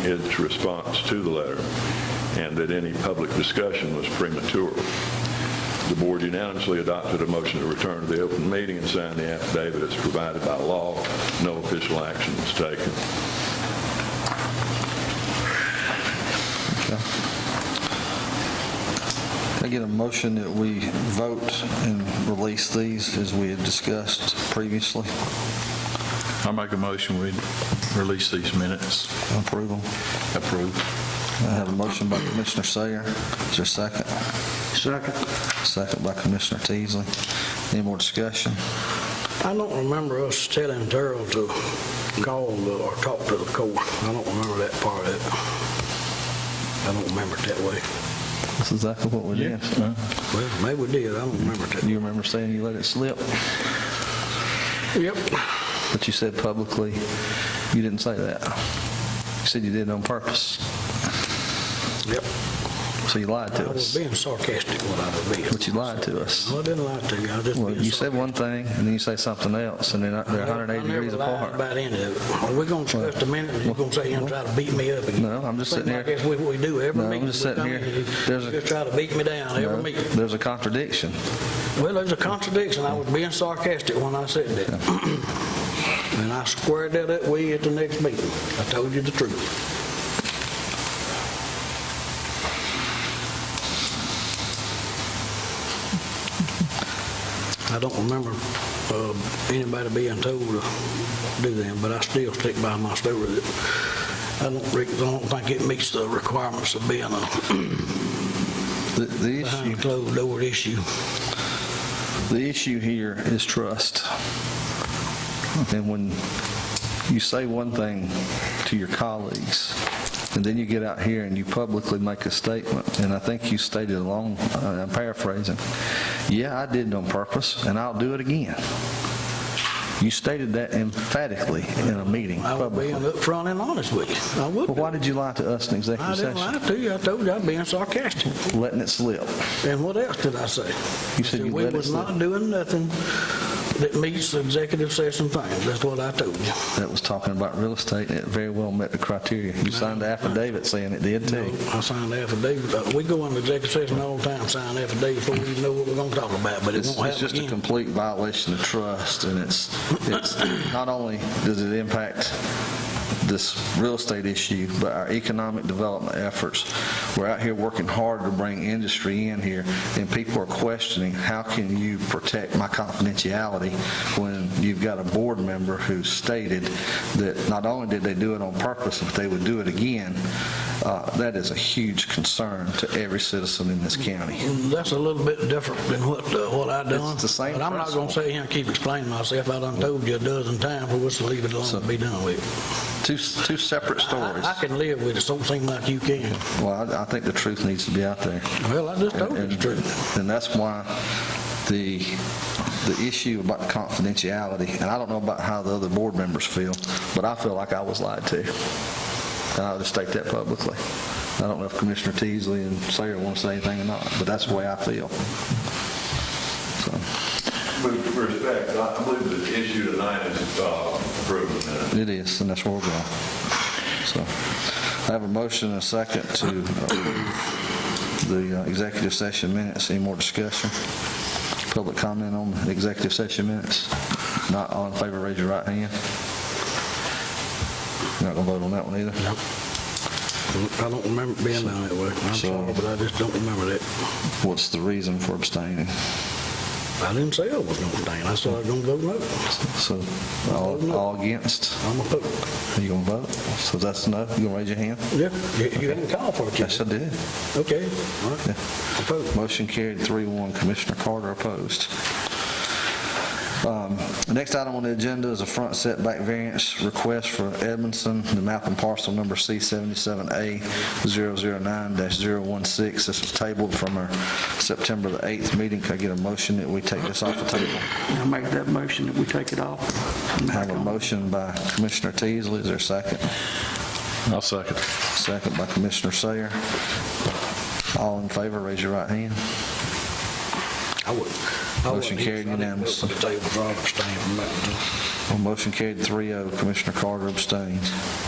its response to the letter, and that any public discussion was premature. The board unanimously adopted a motion to return to the open meeting and sign the affidavit as provided by law. No official action was taken. Okay. Can I get a motion that we vote and release these as we had discussed previously? I make a motion, we release these minutes. Approval. Approve. I have a motion by Commissioner Sayer. Is there a second? Second. Second by Commissioner Teasley. Any more discussion? I don't remember us telling Terrell to call the- or talk to the court. I don't remember that part of it. I don't remember it that way. That's exactly what we did. Yes. Well, maybe we did, I don't remember it that. You remember saying you let it slip, Yep. but you said publicly, you didn't say that. You said you did it on purpose, Yep. so you lied I to was us. being sarcastic when I was being. But you lied to us. No, I didn't lie to you, I was just Well, being you said sarcastic. one thing, and then you say something else, and they're not- they're 180 degrees I never lied apart. about any of it. Are we going to discuss a minute, and you're going to sit here and try to beat me up again? No, I'm just sitting Seems here- like that's what we do every No, I'm meeting. just we sitting come in, here. you- There's You a- just try to beat me down every No, meeting. There's a contradiction. Well, there's a contradiction. I was being sarcastic when I said that. And I squared that up with you at the next meeting. I told you the truth. I don't remember uh, anybody being told to do that, but I still stick by my story that I don't re- I don't think it meets the requirements of being a The- The issue, behind closed door issue. the issue here is trust. And when you say one thing to your colleagues, and then you get out here and you publicly make a statement, and I think you stated along, uh, I'm paraphrasing, "Yeah, I did it on purpose, and I'll do it again." You stated that emphatically in a meeting I was publicly. being upfront and honest with you. I would. Well, be. why did you lie to us in I executive didn't lie session? to you. I told you I was being sarcastic. Letting it slip. And what else did I say? You said you We let it was slip. not doing nothing that meets the executive session things. That's what I told you. That was talking about real estate, and it very well met the criteria. You signed the affidavit saying it did too. I signed affidavits. Uh, We go into executive session all the time, sign affidavits before we even know what we're going to talk about, but it It's won't it's happen just a again. complete violation of trust, and it's, it's, not only does it impact this real estate issue, but our economic development efforts. We're out here working hard to bring industry in here, and people are questioning, how can you protect my confidentiality when you've got a board member who stated that not only did they do it on purpose, but they would do it again? Uh, That is a huge concern to every citizen in this county. And That's a little bit different than what, uh, what I done. It's the same But I'm not going to principle. sit here and keep explaining myself. I done told you a dozen times, we'll just leave it alone and be done with it. Two, two separate stories. I I can live with it. Don't seem like you can. Well, I, I think the truth needs to be out there. Well, I just told you And- the truth. And that's why the, the issue about confidentiality, and I don't know about how the other board members feel, but I feel like I was lied to. And I'll just state that publicly. I don't know if Commissioner Teasley and Sayer want to say anything or not, but that's the way I feel. So, With respect, I believe the issue tonight is approved minutes. it is, and that's where we're going. So, I have a motion and a second to approve the uh, executive session minutes. Any more discussion? Public comment on the executive session minutes? Not all in favor, raise your right hand. You're not going to vote on that one either? I don't remember being down that way. I'm So- sorry, but I just don't remember that. What's the reason for abstaining? I didn't say I was gonna abstain. I said I was gonna vote no. So, all all against? I'm a vote. Are you going to vote? So that's no? You going to raise your hand? Yeah, you- you didn't call for it, you Yes, I did. Okay, all right. I vote. Motion carried, 3-1. Commissioner Carter opposed. Um, The next item on the agenda is a front setback variance request for Edmondson, the map and parcel number C77A009-016. This was tabled from our September the 8th meeting. Can I get a motion that we take this off the table? I make that motion that we take it off. I Have a motion by Commissioner Teasley, is there a second? I'll second. Second by Commissioner Sayer. All in favor, raise your right hand. I would. I Motion wasn't here, carried so I didn't vote unanimously. for The table, so I abstained from that. Well, Motion carried 3-0. Commissioner oh. Carter abstains.